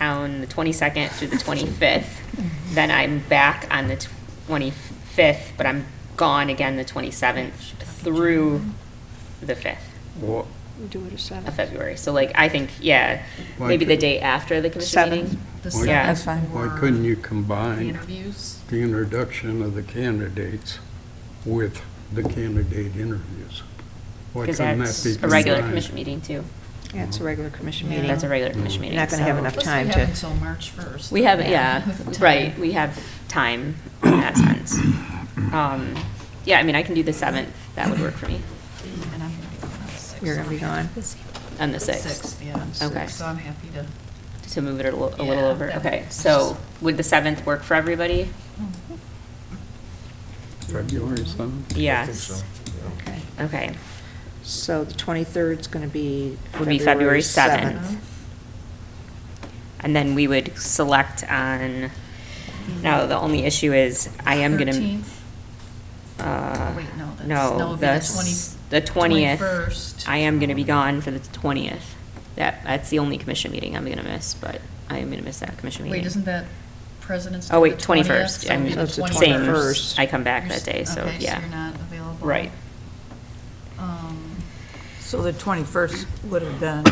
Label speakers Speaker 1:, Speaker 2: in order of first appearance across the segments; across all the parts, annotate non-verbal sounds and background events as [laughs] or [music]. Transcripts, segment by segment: Speaker 1: on the 22nd through the 25th. Then I'm back on the 25th, but I'm gone again the 27th through the 5th
Speaker 2: Well,
Speaker 3: We do it at
Speaker 1: of
Speaker 3: seven.
Speaker 1: February. So like, I think, yeah,
Speaker 2: Why
Speaker 1: maybe the
Speaker 2: could-
Speaker 1: day after the commission
Speaker 3: Seven.
Speaker 1: meeting.
Speaker 4: The
Speaker 1: Yeah.
Speaker 2: Why-
Speaker 4: seventh
Speaker 5: That's fine.
Speaker 2: Why
Speaker 4: for
Speaker 2: couldn't you
Speaker 4: the
Speaker 2: combine
Speaker 4: Interviews.
Speaker 2: the introduction of the candidates with the candidate interviews? Why
Speaker 1: Because
Speaker 2: couldn't that
Speaker 1: that's
Speaker 2: be
Speaker 1: a regular
Speaker 2: combined?
Speaker 1: commission meeting too.
Speaker 3: Yeah, it's a regular commission
Speaker 4: Yeah.
Speaker 3: meeting.
Speaker 1: That's a regular commission
Speaker 3: You're
Speaker 1: meeting.
Speaker 3: not gonna have
Speaker 1: so-
Speaker 3: enough
Speaker 4: Plus,
Speaker 3: time
Speaker 4: we
Speaker 3: to-
Speaker 4: have until March 1st.
Speaker 1: We have,
Speaker 4: [laughs]
Speaker 1: yeah,
Speaker 4: Time.
Speaker 1: right, we have time in that sense. Um, Yeah, I mean, I can do the 7th, that would work for me,
Speaker 4: And I'm gonna be gone on the 6th.
Speaker 3: You're gonna be gone.
Speaker 1: and the
Speaker 4: 6th,
Speaker 1: 6th,
Speaker 4: yeah.
Speaker 1: Okay.
Speaker 4: So I'm happy to.
Speaker 1: to move it a little a little
Speaker 4: Yeah,
Speaker 1: over,
Speaker 4: that
Speaker 1: okay.
Speaker 4: works.
Speaker 1: So would the 7th work for everybody?
Speaker 2: February seventh?
Speaker 1: Yes,
Speaker 4: Okay.
Speaker 1: okay,
Speaker 3: So the 23rd's going to be
Speaker 1: Would be February 7th.
Speaker 4: Uh-huh.
Speaker 1: and then we would select on, now, the only issue is, I am gonna.
Speaker 4: 13th.
Speaker 1: uh,
Speaker 4: Wait, no, that's- no,
Speaker 1: No,
Speaker 4: it'd be
Speaker 1: the,
Speaker 4: the
Speaker 1: s-
Speaker 4: 20
Speaker 1: the 20th.
Speaker 4: 21st.
Speaker 1: I am gonna be gone for the 20th. That, that's the only commission meeting I'm gonna miss, but I am gonna miss that commission meeting.
Speaker 4: Wait, isn't that President's?
Speaker 1: Oh,
Speaker 4: Day,
Speaker 1: wait,
Speaker 4: the 20th?
Speaker 1: 21st.
Speaker 4: So it'd be
Speaker 3: I'm-
Speaker 4: the
Speaker 3: So it's the
Speaker 4: 21st.
Speaker 3: 21st.
Speaker 1: I come back
Speaker 4: You're s-
Speaker 1: that day, so,
Speaker 4: okay,
Speaker 1: yeah.
Speaker 4: you're not available.
Speaker 1: Right.
Speaker 4: Um,
Speaker 5: So the 21st would have been,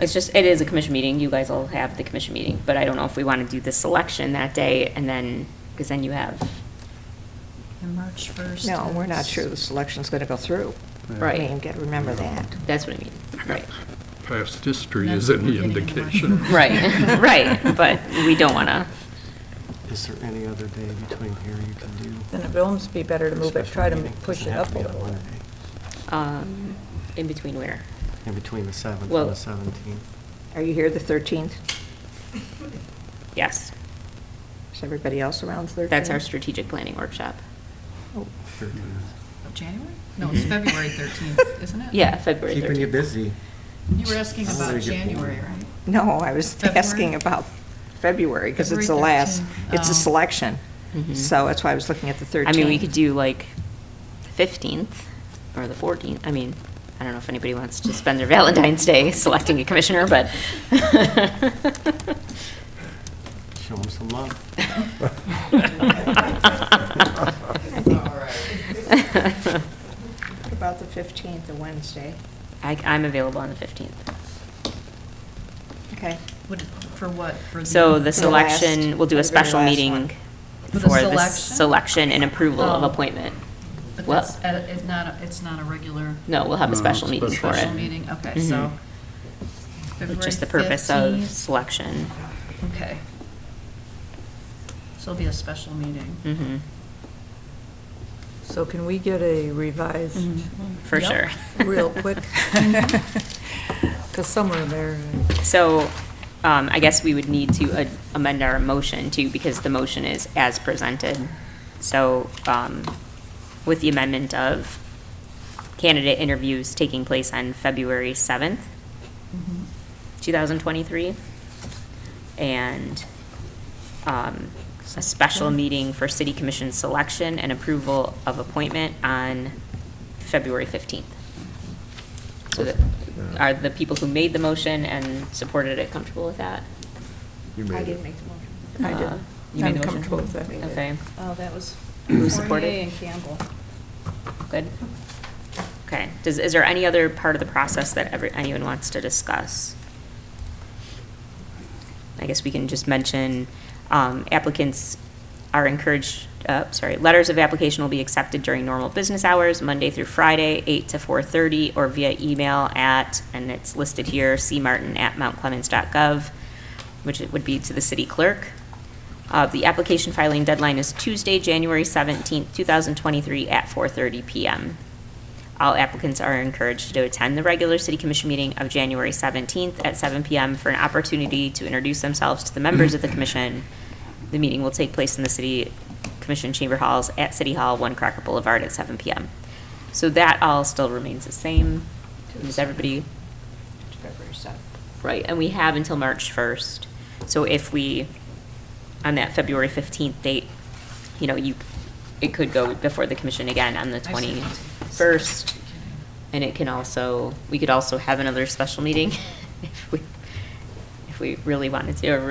Speaker 1: It's just, it is a commission meeting, you guys all have the commission meeting, but I don't know if we want to do the selection that day and then, because then you have,
Speaker 4: And March 1st.
Speaker 3: No, we're not
Speaker 4: is-
Speaker 3: sure the selection's going to go through.
Speaker 1: Right.
Speaker 3: I mean, got to remember that.
Speaker 1: that's what I mean, right?
Speaker 2: Past history
Speaker 4: That's what
Speaker 2: is any
Speaker 4: we're getting at.
Speaker 2: indication.
Speaker 1: Right, [laughs] right, but we don't want to,
Speaker 6: Is there any other day between here you can do?
Speaker 5: then it would almost be better to move it,
Speaker 6: special
Speaker 5: try to
Speaker 6: meeting?
Speaker 5: push
Speaker 6: Doesn't
Speaker 5: it
Speaker 6: have
Speaker 5: up
Speaker 6: to
Speaker 5: a
Speaker 6: be on
Speaker 5: little. bit.
Speaker 6: Monday.
Speaker 1: um, in between where?
Speaker 6: In between the 7th and
Speaker 1: Well-
Speaker 6: the 17th.
Speaker 3: Are you here the 13th?
Speaker 1: Yes,
Speaker 3: Is everybody else around the 13th?
Speaker 1: that's our strategic planning workshop.
Speaker 3: Oh,
Speaker 4: Of January? No, it's
Speaker 1: Mhm.
Speaker 4: February 13th, isn't
Speaker 1: [laughs]
Speaker 4: it?
Speaker 1: Yeah, February 13th.
Speaker 6: Keeping you busy.
Speaker 4: You were asking
Speaker 6: I'm
Speaker 4: about
Speaker 6: gonna get bored.
Speaker 4: January, right?
Speaker 3: No, I was
Speaker 4: February?
Speaker 3: asking about February because it's the
Speaker 4: February
Speaker 3: last,
Speaker 4: 13th.
Speaker 3: it's
Speaker 4: Oh.
Speaker 3: a selection. [laughs]
Speaker 1: Mhm.
Speaker 3: So that's why I was looking at the 13th.
Speaker 1: I mean, we could do like the fifteenth or the fourteenth. I mean, I don't know if anybody wants to spend their [laughs] Valentine's Day selecting a commissioner, but. [laughs]
Speaker 6: Show them
Speaker 5: [laughs]
Speaker 6: some love. [laughs]
Speaker 5: [laughs]
Speaker 3: What About the 15th, the Wednesday.
Speaker 1: I, I'm available on the fifteenth.
Speaker 3: Okay.
Speaker 4: Would- For what? For
Speaker 1: So the
Speaker 3: For the last-
Speaker 1: selection, we'll do a
Speaker 3: for the very
Speaker 1: special
Speaker 3: last
Speaker 1: meeting
Speaker 3: one.
Speaker 4: For the
Speaker 1: for the
Speaker 4: selection?
Speaker 1: selection and approval of
Speaker 4: Oh.
Speaker 1: appointment.
Speaker 4: But
Speaker 1: Well-
Speaker 4: that's, uh, it's not, a- it's not a regular.
Speaker 1: No, we'll have a
Speaker 2: No,
Speaker 1: special meeting for
Speaker 2: special.
Speaker 4: Special
Speaker 1: it. Mm-hmm.
Speaker 4: meeting, okay, so.
Speaker 1: Which
Speaker 4: February
Speaker 1: is the purpose of
Speaker 4: 15th.
Speaker 1: selection.
Speaker 4: Okay. So it'll be a special meeting.
Speaker 1: Mhm.
Speaker 5: So can we get a revised
Speaker 3: Mm-hmm.
Speaker 1: For
Speaker 4: Yep.
Speaker 1: sure. [laughs] Mm-hmm.
Speaker 5: real quick? [laughs] Because somewhere there,
Speaker 1: So um, I guess we would need to a- amend our motion too, because the motion is as presented. So um, with the amendment of candidate interviews taking place on February 7th, 2023, and um, a special meeting for city commission selection and approval of appointment on February 15th. So that, are the people who made the motion and supported it comfortable with that?
Speaker 7: You made it.
Speaker 3: make the motion.
Speaker 5: I
Speaker 1: Uh,
Speaker 5: did.
Speaker 1: You made
Speaker 5: I'm
Speaker 1: the motion?
Speaker 5: comfortable with that.
Speaker 1: Okay,
Speaker 3: Oh, that was
Speaker 1: Who supported? Fournier and
Speaker 3: Campbell.
Speaker 1: good. Okay, does, is there any other part of the process that every, anyone wants to discuss? I guess we can just mention um, applicants are encouraged, uh, sorry, letters of application will be accepted during normal business hours, Monday through Friday, 8 to 4:30, or via email at, and it's listed here, cmartin@mountclemens.gov, which it would be to the city clerk. Uh, The application filing deadline is Tuesday, January 17th, 2023, at 4:30 PM. All applicants are encouraged to attend the regular city commission meeting of January 17th at 7 PM for an opportunity to introduce themselves to the members of the commission. The meeting will take place in the city commission chamber halls at City Hall, One Cracker Boulevard at 7 PM. So that all still remains the same. Is everybody
Speaker 3: February 7th.
Speaker 1: Right, and we have until March 1st. So if we, on that February 15th date, you know, you, it could go before the commission again on the
Speaker 4: I see.
Speaker 1: 21st. And it can [laughs] also, we could also have another special meeting if we, if we really wanted to, or